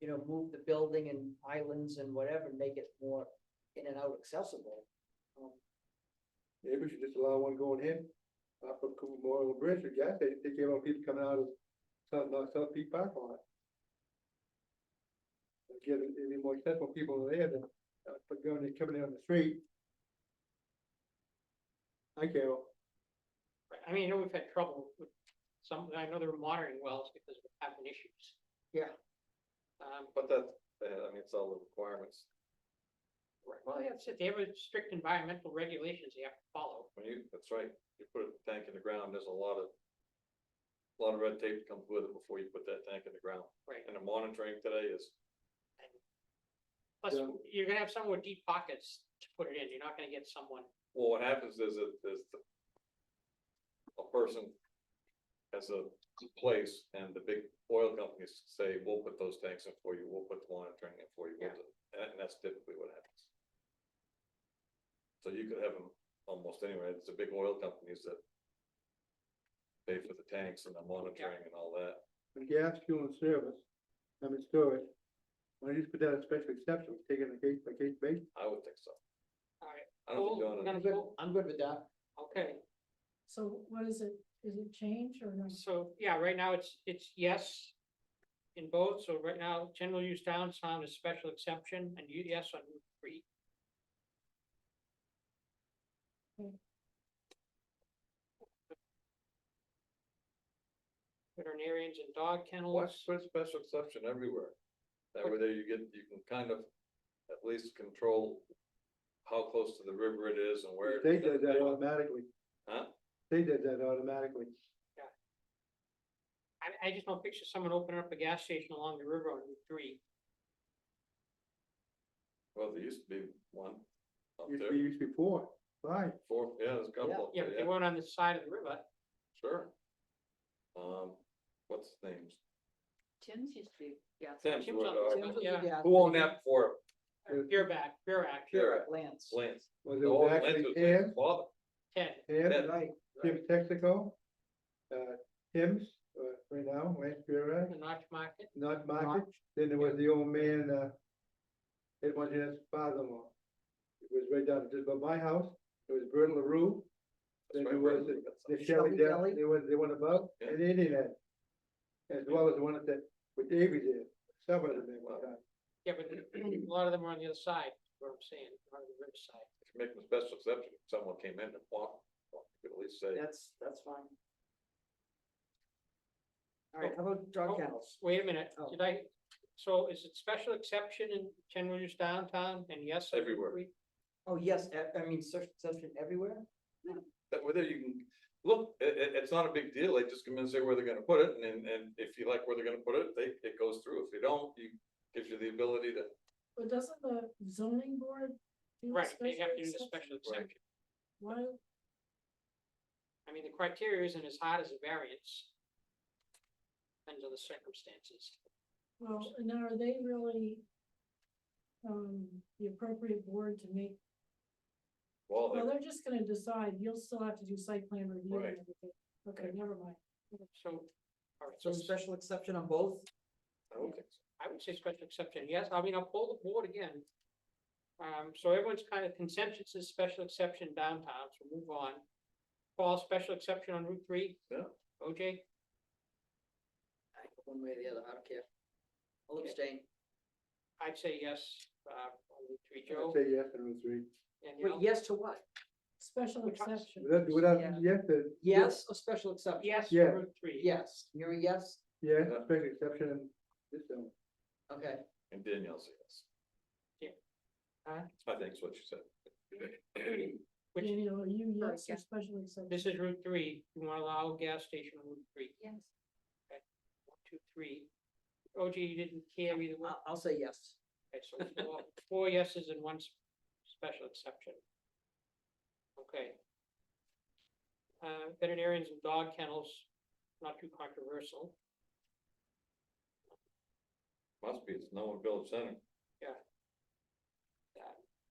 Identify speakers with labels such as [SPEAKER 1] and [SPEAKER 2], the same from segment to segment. [SPEAKER 1] you know, move the building and islands and whatever, make it more in and out accessible. Um,
[SPEAKER 2] Maybe we should just allow one going in, off of Cooper Memorial Bridge, or gas station, take care of people coming out of South, North South Peak Park on it. Get it, it'd be more accessible for people there than, uh, for going, and coming in on the street. Hi, Carol.
[SPEAKER 3] I mean, I know we've had trouble with some, I know there were monitoring wells because we're having issues.
[SPEAKER 1] Yeah.
[SPEAKER 3] Um,
[SPEAKER 4] But that, eh, I mean, it's all the requirements.
[SPEAKER 3] well, that's it. They have strict environmental regulations they have to follow.
[SPEAKER 4] When you, that's right, you put a tank in the ground, there's a lot of, a lot of red tape that comes with it before you put that tank in the ground.
[SPEAKER 3] Right.
[SPEAKER 4] And the monitoring today is,
[SPEAKER 3] Plus,
[SPEAKER 2] Yeah.
[SPEAKER 3] you're gonna have someone with deep pockets to put it in. You're not gonna get someone,
[SPEAKER 4] well, what happens is it, is the a person has a place and the big oil companies say, we'll put those tanks in for you, we'll put the monitoring in for you. we'll
[SPEAKER 3] Yeah.
[SPEAKER 4] do-" And and that's typically what happens. So you could have them almost anywhere. It's the big oil companies that pay for the tanks and the monitoring and all that.
[SPEAKER 2] for gas, fuel and service, I mean storage. Why don't you just put that as special exception, take it on a case by case basis?
[SPEAKER 4] I would think so.
[SPEAKER 3] all right,
[SPEAKER 4] I don't think
[SPEAKER 3] Cool.
[SPEAKER 4] you're
[SPEAKER 3] Gonna
[SPEAKER 1] I'm
[SPEAKER 4] gonna,
[SPEAKER 1] good, I'm good with that.
[SPEAKER 3] okay.
[SPEAKER 5] So what is it, is it change or no?
[SPEAKER 3] So, yeah, right now it's, it's yes in both. So right now, general use downtown is special exception and you, yes on Route three.
[SPEAKER 5] Hmm.
[SPEAKER 3] Veterinarians and dog
[SPEAKER 4] watch
[SPEAKER 3] kennels,
[SPEAKER 4] for special exception everywhere. That way there you get, you can kind of at least control how close to the river it is and where.
[SPEAKER 2] They does that automatically,
[SPEAKER 4] Huh?
[SPEAKER 2] they does that automatically.
[SPEAKER 3] I, I just don't picture someone opening up a gas station along the river on Route three.
[SPEAKER 4] Well, there used to be one up
[SPEAKER 2] Used to be,
[SPEAKER 4] there,
[SPEAKER 2] used to be four, five.
[SPEAKER 4] four, yeah, there's a couple up
[SPEAKER 3] Yeah,
[SPEAKER 4] there,
[SPEAKER 3] but they
[SPEAKER 4] yeah,
[SPEAKER 3] weren't on the side of the river.
[SPEAKER 4] sure. Um, what's his name?
[SPEAKER 1] Tim's used to be, yeah.
[SPEAKER 4] Tim's,
[SPEAKER 3] Jim's on-
[SPEAKER 4] uh,
[SPEAKER 3] Tim's was a Yeah.
[SPEAKER 4] Who owned that for
[SPEAKER 2] Tim.
[SPEAKER 3] Beer back, beer act,
[SPEAKER 4] Pierre?
[SPEAKER 1] Lance.
[SPEAKER 4] Lance.
[SPEAKER 2] Was it
[SPEAKER 4] The old
[SPEAKER 2] was
[SPEAKER 4] Lance
[SPEAKER 2] actually
[SPEAKER 4] was Lance's
[SPEAKER 2] Tim,
[SPEAKER 4] father.
[SPEAKER 3] Ted.
[SPEAKER 2] Tim,
[SPEAKER 1] Right,
[SPEAKER 2] Tim Texaco, uh, Tim's, uh, right now, Lance Pura,
[SPEAKER 3] The Notch Market,
[SPEAKER 2] not Market. Then there was the old man, uh, it was his father-in-law. It was right down just by my house. It was Bert LaRue, Then
[SPEAKER 4] That's right,
[SPEAKER 2] there was
[SPEAKER 4] Brandon, that's-
[SPEAKER 2] The
[SPEAKER 1] Shelby
[SPEAKER 2] Shelby Dell,
[SPEAKER 1] Deli?
[SPEAKER 2] they was the one above,
[SPEAKER 4] Yeah.
[SPEAKER 2] and Indian Head. As well as the one that, with Avery did, some of them,
[SPEAKER 4] Wow.
[SPEAKER 2] uh,
[SPEAKER 3] yeah, but a lot of them are on the other side, is what I'm saying, on the riverside.
[SPEAKER 4] If you make a special exception, if someone came in and walked, walked, you could at least say,
[SPEAKER 1] that's, that's fine. All right, how about dog
[SPEAKER 3] Oh.
[SPEAKER 1] kennels?
[SPEAKER 3] Wait a minute,
[SPEAKER 1] Oh.
[SPEAKER 3] did I, so is it special exception in general use downtown and yes? on Route
[SPEAKER 4] Everywhere.
[SPEAKER 3] three?
[SPEAKER 1] Oh, yes, I, I mean, search exception everywhere?
[SPEAKER 4] that whether you can, look, it, it, it's not a big deal, they just come in and say where they're gonna put it, and, and and if you like where they're gonna put it, they, it goes through, if you don't, you, gives you the ability to,
[SPEAKER 5] But doesn't the zoning board? do the
[SPEAKER 3] Right, they have to do the
[SPEAKER 5] exception?
[SPEAKER 3] special exception.
[SPEAKER 5] Why,
[SPEAKER 3] I mean, the criteria isn't as hard as a variance. Depends on the circumstances.
[SPEAKER 5] well, and are they really? Um, the appropriate board to make,
[SPEAKER 4] well,
[SPEAKER 5] well,
[SPEAKER 4] they-
[SPEAKER 5] they're just gonna decide, you'll still have to do site plan review and
[SPEAKER 4] Right.
[SPEAKER 5] everything, okay, never mind.
[SPEAKER 3] So, all right,
[SPEAKER 1] So
[SPEAKER 3] so
[SPEAKER 1] special exception on both?
[SPEAKER 4] I don't think so.
[SPEAKER 3] I would say special exception, yes, I mean, I'll pull the board again. Um, so everyone's kind of consensus is special exception downtown, so move on. Paul, special exception on Route three?
[SPEAKER 4] Yeah.
[SPEAKER 3] OJ,
[SPEAKER 1] I- One way or the other, I don't care. I'll
[SPEAKER 3] Okay.
[SPEAKER 1] abstain.
[SPEAKER 3] I'd say yes, uh, on Route three,
[SPEAKER 2] I'd
[SPEAKER 3] Joe.
[SPEAKER 2] say yes and Route three.
[SPEAKER 3] and
[SPEAKER 1] Wait,
[SPEAKER 3] Al?
[SPEAKER 1] yes to what?
[SPEAKER 5] Special
[SPEAKER 3] Which one?
[SPEAKER 5] exception,
[SPEAKER 2] Without, without,
[SPEAKER 1] Yeah.
[SPEAKER 2] yes, the-
[SPEAKER 1] Yes, a special exception?
[SPEAKER 3] Yes,
[SPEAKER 2] Yeah.
[SPEAKER 3] Route three.
[SPEAKER 1] Yes, you're a yes,
[SPEAKER 2] yes,
[SPEAKER 4] Yeah.
[SPEAKER 2] special exception and this one.
[SPEAKER 1] okay.
[SPEAKER 4] And Danielle said yes.
[SPEAKER 3] Yeah. Huh?
[SPEAKER 4] I think is what you said.
[SPEAKER 3] Which-
[SPEAKER 5] Daniel, are you
[SPEAKER 1] Oh,
[SPEAKER 5] yes
[SPEAKER 1] yeah.
[SPEAKER 5] or special exception?
[SPEAKER 3] This is Route three, you wanna allow a gas station on Route three,
[SPEAKER 1] Yes.
[SPEAKER 3] one, two, three. OJ, you didn't care either one,
[SPEAKER 1] I'll, I'll say yes.
[SPEAKER 3] okay, so four, four yeses and one s- special exception. Okay. Uh, veterinarians and dog kennels, not too controversial,
[SPEAKER 4] Must be, it's no one built center.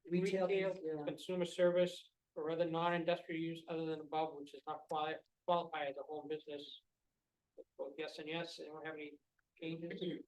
[SPEAKER 1] Retail,
[SPEAKER 3] Retail,
[SPEAKER 1] yeah,
[SPEAKER 3] consumer service or other non-industrial use other than above, which is not quali- qualified as a home business. Both yes and yes, anyone have any changes?